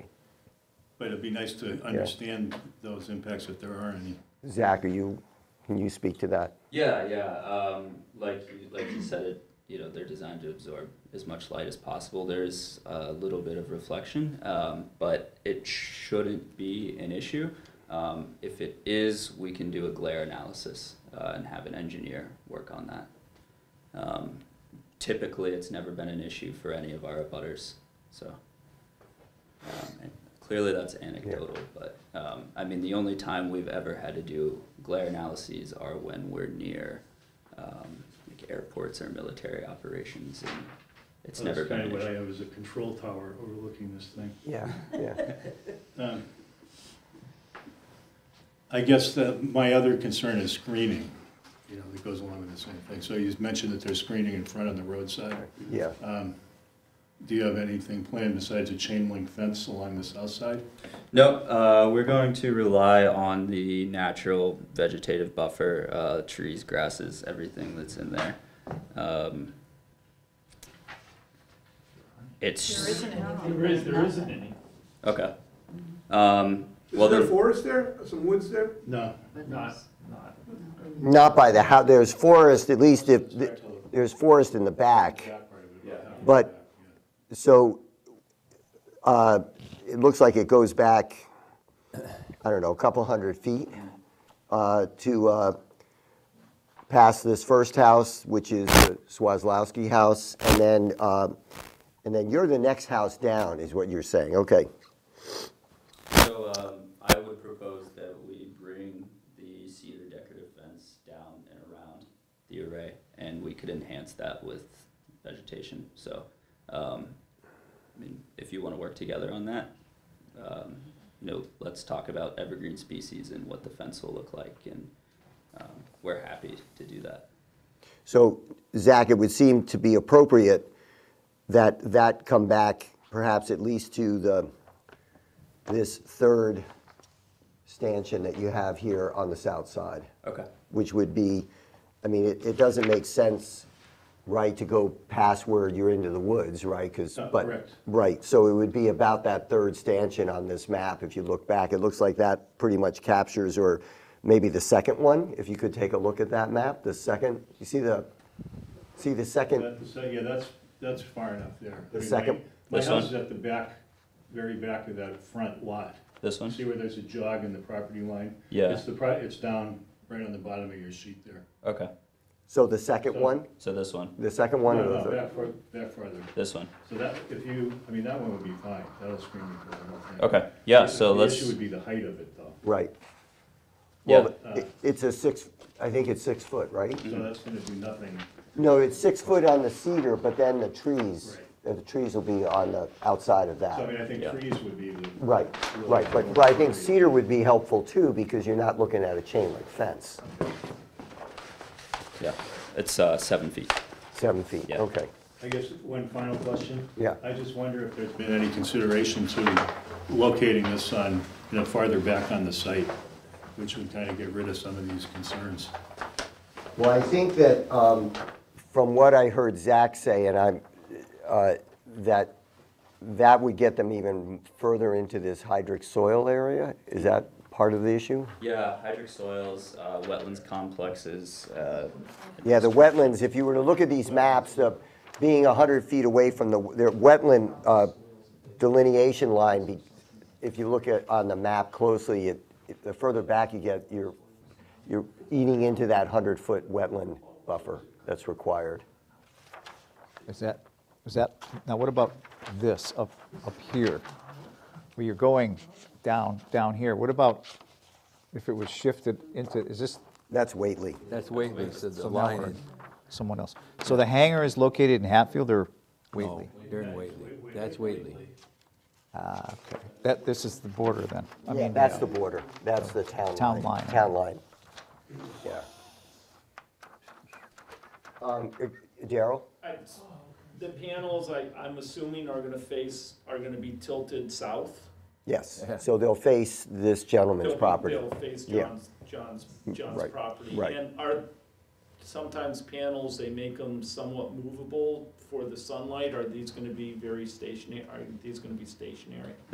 But it'd be nice to understand those impacts if there are any. Zach, are you, can you speak to that? Yeah, yeah. Um, like you, like you said, it you know they're designed to absorb as much light as possible. There's a little bit of reflection, um, but it shouldn't be an issue. Um, if it is, we can do a glare analysis uh, and have an engineer work on that. Um, typically, it's never been an issue for any of our abutters. So, um, and clearly that's anecdotal, but um, I mean, the only time we've ever had to do glare analyses are when we're near um, like airports or military operations, and it's Well, never That's been kind an of what I issue. have as a control tower overlooking this thing. Yeah, yeah. Um, I guess that my other concern is screening, you know, that goes along with the same thing. So you mentioned that there's screening in front on the roadside. Yeah, Um, Do you have anything planned besides a chain link fence along the south side? No, uh, we're going to rely on the natural vegetative buffer, uh, trees, grasses, everything that's in there. Um, it's There isn't anything. There is, there isn't any. okay. Um, well, Is there the- a forest there, some woods there? No. Not, not. not by the house, there's forest, at least if, there's forest in the back. But- So, uh, it looks like it goes back, I don't know, a couple hundred feet uh, to uh, past this first house, which is the Swazlowski house, and then, uh, and then you're the next house down, is what you're saying, okay. So um, I would propose that we bring the cedar decorative fence down and around the array, and we could enhance that with vegetation. So, um, I mean, if you want to work together on that, um, you know, let's talk about evergreen species and what the fence will look like, and um, we're happy to do that. So, Zach, it would seem to be appropriate that that come back perhaps at least to the, this third stanchion that you have here on the south side, Okay. which would be, I mean, it, it doesn't make sense, right, to go past where you're into the woods, right? 'Cause- Uh, but- correct. Right, so it would be about that third stanchion on this map, if you look back. It looks like that pretty much captures, or maybe the second one, if you could take a look at that map, the second, you see the, see the second, That- so, Yeah, that's, that's far enough there. The I mean, my- second- My This house is one? at the back, very back of that front lot. This one? See where there's a jog in the property line? Yeah. It's the, pro- it's down right on the bottom of your sheet there. Okay. so the second one? So this one, The second one or No, the no, third? Uh, That far, that farther. this one. So that, if you, I mean, that one would be fine, that'll screen you for the whole thing. Okay. Yeah. The- So The let's. issue would be the height of it, though. Right. Yeah. Well, it- It's a six, I think it's six foot, right? uh, So Mm-hmm. that's gonna do nothing. No, it's six foot on the cedar, but then the trees, uh, the trees will be on the outside of So I mean, that. I think Yeah. trees would be the. Right, right, but, but I think cedar would be helpful too, because you're not looking at a chain link fence, Yeah. It's uh, seven feet. seven feet, Yeah. okay. I guess one final question. Yeah. I just wonder if there's been any consideration to locating this on, you know, farther back on the site, which would kind of get rid of some of these concerns. Well, I think that, um, from what I heard Zach say, and I'm, uh, that, that would get them even further into this hydric soil area? Is that part of the issue? Yeah, hydric soils, uh, wetlands complexes, uh, Yeah, the wetlands, if you were to look at these maps, uh, being 100 feet away from the, their wetland uh, delineation line, be- if you look at, on the map closely, it- it- the further back you get, you're, you're eating into that 100-foot wetland buffer that's required. Is that, is that, now what about this up, up here? Where you're going down, down here, what about if it was shifted into, is this That's Whately. That's Whately, so the So now line we're- is, someone else? So the hangar is located in Hatfield or Wheatley? no, they're in Oh, Whately, that's Whately. That, this is the border then? I Yeah, mean, that's the border, that's the town line. Town line. Town line, yeah. Um, uh, Daryl? I- The panels, I, I'm assuming are gonna face, are gonna be tilted south. Yes, so they'll face this gentleman's They'll- property. They'll face Yeah. Mm, John's, John's, John's right, property. right. And are, sometimes panels, they make them somewhat movable for the sunlight. Are these gonna be very stationary, are these gonna be stationary?